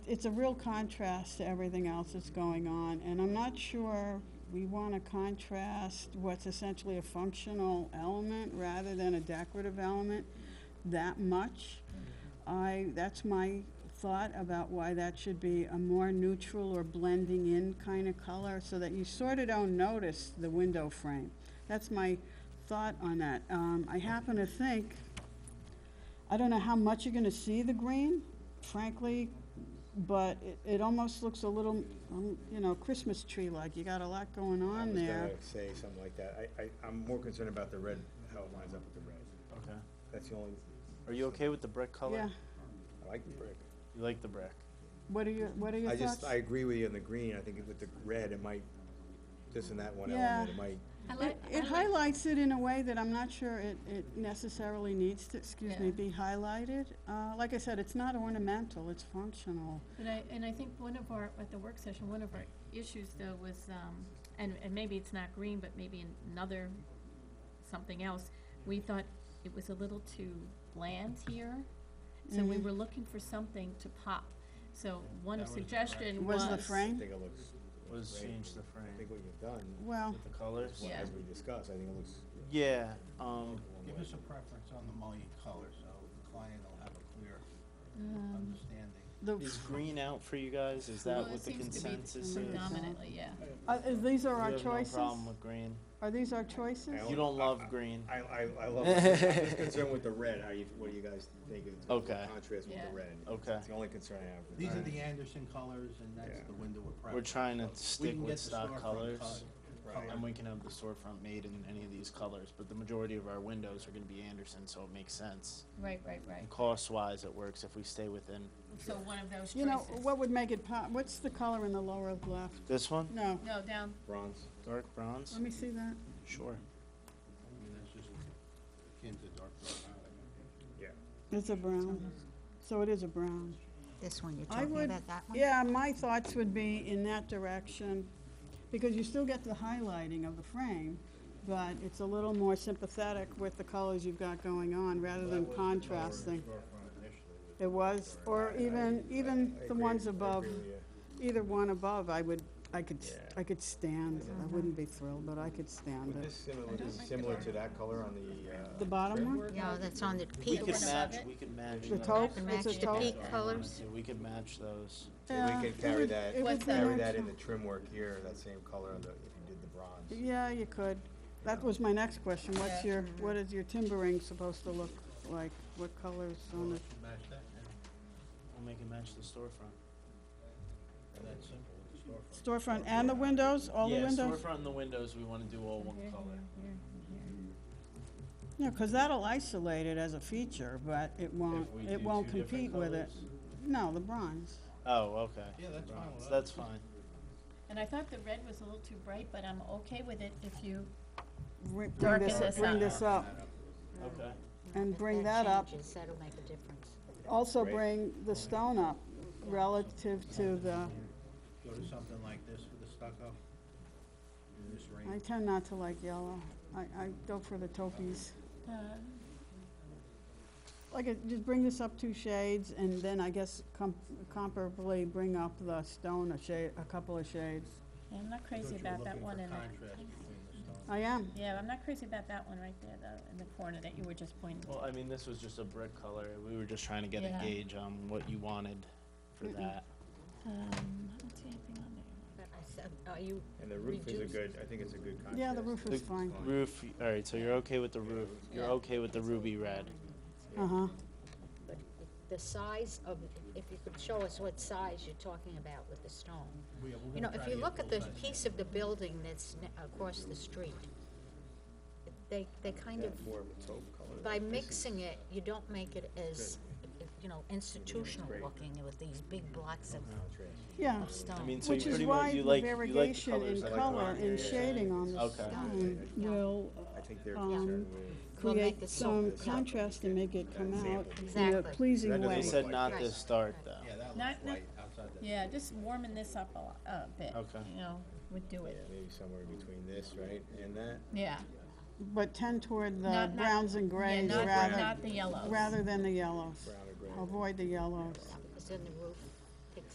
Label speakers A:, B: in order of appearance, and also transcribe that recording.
A: it's a real contrast to everything else that's going on, and I'm not sure we want to contrast what's essentially a functional element rather than a decorative element that much. I, that's my thought about why that should be a more neutral or blending in kind of color, so that you sort of don't notice the window frame. That's my thought on that. Um, I happen to think, I don't know how much you're gonna see the green, frankly, but it, it almost looks a little, um, you know, Christmas tree-like. You got a lot going
B: I
A: on
B: was
A: there.
B: gonna say something like that. I, I, I'm more concerned about the red, how it lines up with the red.
C: Okay.
B: That's the only,
C: Are you okay with the brick color?
A: Yeah,
B: I like the brick.
C: You like the brick?
A: what are your, what are your
B: I
A: thoughts?
B: just, I agree with you on the green. I think with the red, it might, this and that one
A: Yeah.
B: element, it might,
D: I
A: It,
D: like, I
A: it
D: like-
A: highlights it in a way that I'm not sure it, it necessarily needs to, excuse me,
D: Yeah.
A: be highlighted. Uh, like I said, it's not ornamental, it's functional.
D: And I, and I think one of our, at the work session, one of our issues though was, um, and, and maybe it's not green, but maybe another, something else. We thought it was a little too bland here, so we
A: Mhm.
D: were looking for something to pop. So one
C: That was the
D: suggestion was.
A: Was the
B: I
A: frame?
B: think it looks.
C: Let's
B: great.
C: change the
B: I think
C: frame
B: what you've done,
A: Well,
C: with the colors.
D: Yeah.
B: as we discussed, I think it looks.
C: Yeah, um,
E: Give us a preference on the mullion color, so the client will have a clear
D: Um,
E: understanding.
A: the,
C: is green out for you guys? Is
D: well,
C: that
D: it
C: what the
D: seems to be
C: consensus is?
D: Predominantly, yeah.
A: uh, is these
C: You
A: are our
C: have no
A: choices?
C: problem with green.
A: Are these our choices?
B: I
C: You don't love green.
B: I, I, I love, it. I'm just concerned with the red. How you, what do you guys think of the
C: Okay.
B: contrast with
D: Yeah.
B: the red?
C: Okay.
B: It's the only concern I have. with
E: These are
B: that.
E: the Anderson colors, and that's
B: Yeah.
E: the window of preference.
C: We're trying to
E: So we
C: stick
E: can
C: with
E: get the
C: stock
E: storefront
C: colors.
E: color-
B: Right.
C: And we can have the storefront made in any of these colors, but the majority of our windows are gonna be Anderson, so it makes sense.
D: Right, right, right.
C: And cost-wise, it works if we stay within,
D: So one of those choices.
A: You know, what would make it pop, what's the color in the lower left?
C: this one,
A: No,
D: No, down,
B: Bronze.
C: dark bronze?
A: let me see that.
C: Sure.
E: I mean, that's just akin to dark brown.
B: Yeah.
A: It's a brown, so it is a brown.
F: This one, you're
A: I
F: talking
A: would-
F: about that one?
A: Yeah, my thoughts would be in that direction, because you still get the highlighting of the frame, but it's a little more sympathetic with the colors you've got going on, rather than contrasting. It was, or even, even
B: I
A: the
B: agree-
A: ones
B: I
A: above,
B: agree with you.
A: either one above, I would, I could, s-
B: Yeah.
A: I could stand, I wouldn't be thrilled, but I could stand
B: Would
A: it.
B: this similar, this is similar to that color on the, uh?
A: The bottom one?
F: Yeah, that's on the
C: We
F: peak.
C: could
D: Peaks.
C: match, we could match.
A: The
C: those.
A: taupe,
F: To match
A: it's a
F: the
A: taupe.
F: peak colors.
C: Yeah, we could match those.
B: So we
A: Yeah,
B: can
A: it
B: carry
A: would-
B: that,
A: it would
D: What's
A: be
B: carry
A: nice.
B: that in the trim work here, that same color on the, if you did the bronze.
A: Yeah, you could. That was my next question. What's your,
D: Yeah.
A: what is your timbering supposed to look like? What colors on
E: Well,
A: it?
E: it should match that, and
C: We'll make it match the storefront.
E: that's simple, the storefront.
A: Storefront and the windows, all the
C: yeah,
A: windows?
C: storefront and the windows, we wanna do all one color.
A: Yeah, because that'll isolate it as a feature, but it won't,
C: If we do
A: it won't
C: two different
A: compete with it.
C: colors.
A: No, the bronze.
C: Oh, okay.
E: Yeah, that's fine
C: Bronze,
E: with us.
C: That's fine.
D: and I thought the red was a little too bright, but I'm okay with it if you
A: Bring bring
D: Darken
A: this, up-
D: this
A: bring
D: up.
A: this up
C: Okay.
A: and bring that up.
F: changes, That'll make a difference.
A: Also
B: Right.
A: bring the stone up relative to the,
E: Go to something like this with the stucco, in this
A: I
E: range.
A: tend not to like yellow. I, I go for the taupees.
D: Uh,
A: Like, uh, just bring this up two shades, and then I guess com- comparably bring up the stone a shade, a couple of shades.
D: I'm not crazy
E: But you're
D: about that
E: looking
D: one
E: for
D: in there.
E: contrast between the stones.
A: I am.
D: Yeah, I'm not crazy about that one right there, though, in the corner that you were just pointing
C: Well,
D: to.
C: I mean, this was just a brick color. We were just trying to get a
D: Yeah.
C: gauge on what you wanted for that.
D: Um, I don't see anything on there.
F: But I said, Are you,
B: And the roof is a
F: Reduce.
B: good, I think it's a good contrast.
A: Yeah, the roof is
C: The
A: fine.
C: Roof, all right, so you're okay with the roof. You're
D: Yeah.
C: okay with the ruby red.
A: Uh-huh.
F: but the size of, if you could show us what size you're talking about with the stone.
E: We- we're
F: You
E: gonna
F: know,
E: try
F: if
E: to
F: you
E: get
F: look at the
E: both sides.
F: piece of the building that's ne- across the street, they, they kind of,
B: That More of a taupe color.
F: by
B: This is-
F: mixing it, you don't make it as, you know, institutional looking with these big blocks of
B: Contrast.
A: Yeah.
F: of stone.
C: I mean, so
A: Which
C: you
A: is
C: pretty
A: why
C: much,
A: the
C: you like, you like the
A: variegation in
C: colors.
B: I like the
A: color
B: one
A: and
B: here.
A: shading on the
C: Okay.
A: stone will uh,
B: I think they're
A: Um,
B: concerned with.
F: Will make
A: create
F: it
A: some
F: soft.
A: contrast and make it come out in a
F: Exactly.
B: That
A: pleasing
B: doesn't
C: They
A: way.
B: look
C: said
B: like
C: not
F: this.
C: this dark, though.
E: Yeah, that
D: Not-
E: looks
D: not-
E: white outside that.
D: Yeah, just warming this up a lot, a bit,
C: Okay.
D: you know, would do
B: Yeah,
D: it.
B: maybe somewhere between this, right, and that.
D: Yeah.
A: But tend toward
D: Not-
A: the
D: not-
A: browns and
D: Yeah,
A: grays
D: not,
A: rather,
D: not the yellows.
A: rather than the yellows.
B: Brown or gray.
A: Avoid the yellows.
F: Because then the